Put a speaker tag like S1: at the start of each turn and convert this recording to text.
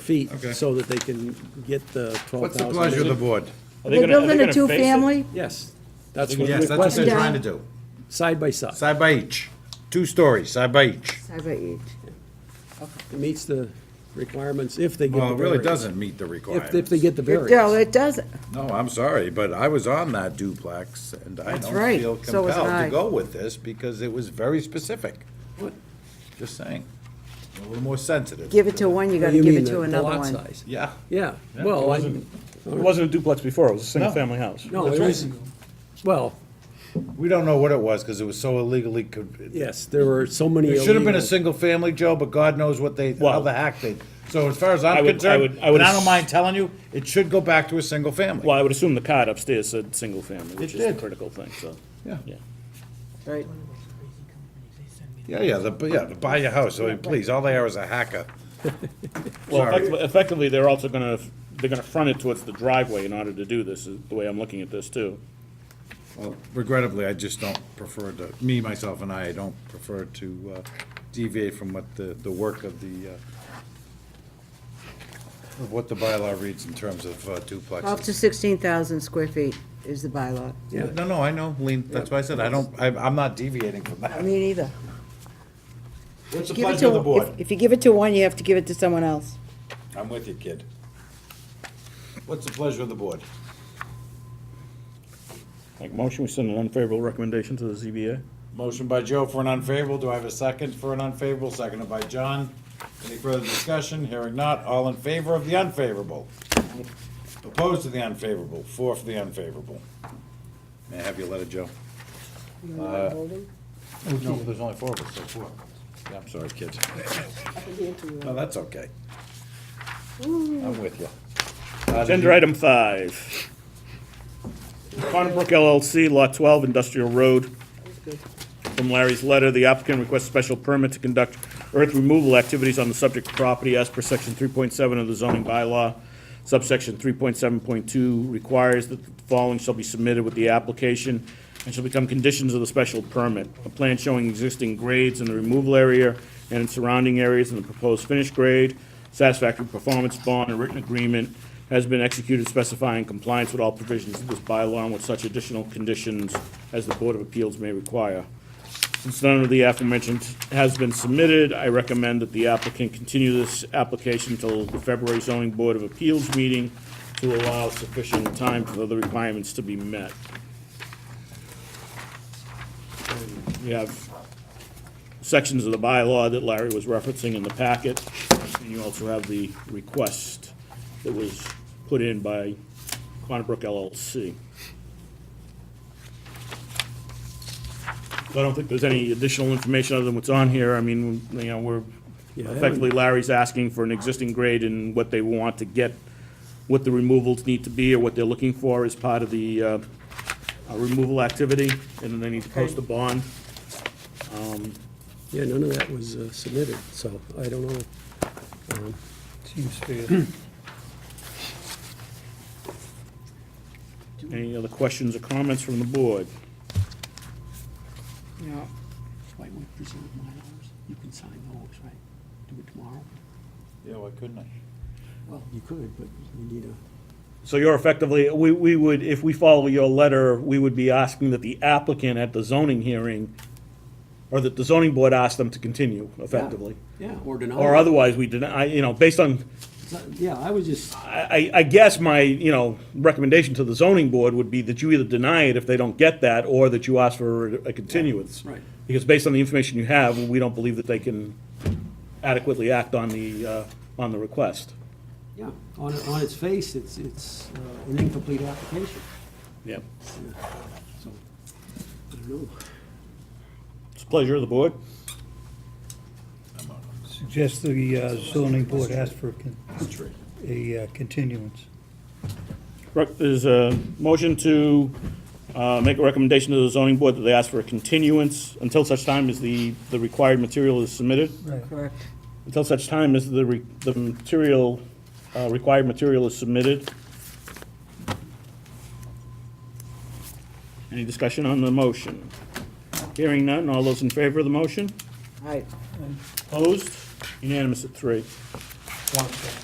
S1: feet
S2: Okay.
S1: so that they can get the twelve
S2: What's the
S1: thousand.
S2: pleasure of the board?
S3: Are
S4: They
S3: they gonna- are they
S4: building
S3: gonna
S4: a
S3: face it?
S4: two-family?
S1: Yes, that's what
S2: Yes, that's what they're
S1: requested,
S4: question.
S2: trying to do.
S1: side by side.
S2: Side by each, two stories, side by each.
S4: Side by each.
S1: It meets the requirements if they get the
S2: Well, it really
S1: variance.
S2: doesn't meet the
S1: If, if
S2: requirements.
S1: they get the
S4: It- No,
S1: variance.
S4: it doesn't.
S2: No, I'm sorry, but I was on that duplex, and I
S4: That's
S2: don't
S4: right.
S2: feel
S4: So was
S2: compelled
S4: I.
S2: to go with this, because it was very specific. Just saying, a little more sensitive.
S4: Give it to one, you
S1: What do
S4: gotta
S1: you
S4: give
S1: mean,
S4: it
S1: the-
S4: to
S1: the
S4: another
S1: lot
S4: one.
S1: size?
S2: Yeah.
S1: Yeah, well, I,
S3: wasn't- It wasn't a duplex before, it was a single-family house.
S1: no, it was, well,
S2: We don't know what it was, because it was so illegally, con-
S1: yes, there were so many
S2: it should have been a
S1: illegals.
S2: single family, Joe, but God knows what they, how
S3: Well-
S2: the hack they, so as far as
S3: I
S2: I'm
S3: would- I
S2: concerned,
S3: would- I would
S2: and I don't
S3: ass-
S2: mind telling you, it should go back to a single
S3: Well,
S2: family.
S3: I would assume the card upstairs said single-family, which
S2: It
S3: is the
S2: did.
S3: critical thing, so.
S2: Yeah.
S3: Yeah.
S4: Right.
S2: Yeah, yeah, the, yeah, the buy your house, I mean, please, all they are is a hacker.
S3: Well,
S2: Sorry.
S3: effectively- effectively, they're also gonna, they're gonna front it towards the driveway in order to do this, is the way I'm looking at this too.
S2: Well, regrettably, I just don't prefer to, me, myself, and I, I don't prefer to uh, deviate from what the, the work of the, uh, of what the bylaw reads in terms of uh,
S4: Up to
S2: duplexes.
S4: sixteen thousand square feet is the bylaw.
S1: Yeah.
S2: No, no, I know, Lean, that's why I said, I don't, I, I'm not deviating from that.
S4: Me neither.
S2: What's the
S4: Give it
S2: pleasure of
S4: to,
S2: the
S4: if,
S2: board?
S4: if you give it to one, you have to give it to someone else.
S2: I'm with you, kid. What's the pleasure of the board?
S3: Like motion, we send an unfavorable recommendation to the ZBA?
S2: Motion by Joe for an unfavorable, do I have a second for an unfavorable, seconded by John? Any further discussion, hearing not, all in favor of the unfavorable? Opposed to the unfavorable, four for the unfavorable. May I have your letter, Joe? Uh, No, there's only four of us, so four. Yeah, I'm sorry, kid. No, that's okay. I'm with you. Uh, did
S3: Agenda
S2: you-
S3: item five. Conbrook LLC, Lot 12, Industrial Road. From Larry's letter, the applicant requests special permit to conduct earth removal activities on the subject property as per section 3.7 of the zoning bylaw. Subsection 3.7.2 requires that the following shall be submitted with the application and shall become conditions of the special permit. A plan showing existing grades in the removal area and in surrounding areas and the proposed finished grade, satisfactory performance bond, and written agreement has been executed specifying compliance with all provisions of this bylaw and with such additional conditions as the Board of Appeals may require. Since none of the aforementioned has been submitted, I recommend that the applicant continue this application until the February zoning Board of Appeals meeting to allow sufficient time for the requirements to be met. We have sections of the bylaw that Larry was referencing in the packet, and you also have the request that was put in by Quantabrook LLC. So I don't think there's any additional information other than what's on here. I mean, you know, we're,
S1: Yeah, I haven't-
S3: effectively Larry's asking for an existing grade and what they want to get, what the removals need to be or what they're looking for as part of the uh, uh, removal activity, and then they need to post a bond.
S1: Yeah, none of that was uh, submitted, so I don't know.
S5: Seems fair.
S3: Any other questions or comments from the board?
S4: No.
S6: Why would not present my hours? You can sign those, right? Do it tomorrow?
S2: Yeah, why couldn't I?
S6: Well, you could, but we need a.
S3: So you're effectively, we, we would, if we follow your letter, we would be asking that the applicant at the zoning hearing, or that the zoning board ask them to continue effectively.
S6: Yeah, or deny.
S3: Or otherwise, we deny, you know, based on,
S6: Yeah, I was just,
S3: I, I I guess my, you know, recommendation to the zoning board would be that you either deny it if they don't get that, or that you ask for a continuance.
S6: Right.
S3: Because based on the information you have, we don't believe that they can adequately act on the, uh, on the request.
S6: yeah, on, on its face, it's, it's uh, an incomplete application,
S3: Yeah.
S6: so, I don't know.
S3: It's a pleasure of the board.
S5: Suggest the uh, zoning board ask for a con- a uh, continuance.
S3: Rec- There's a motion to uh, make a recommendation to the zoning board that they ask for a continuance until such time as the, the required material is submitted,
S5: Right.
S4: Correct.
S3: until such time as the, re- the material, uh, required material is submitted. Any discussion on the motion? Hearing none, all those in favor of the motion?
S4: All right.
S3: Opposed? Unanimous at three.
S5: One second.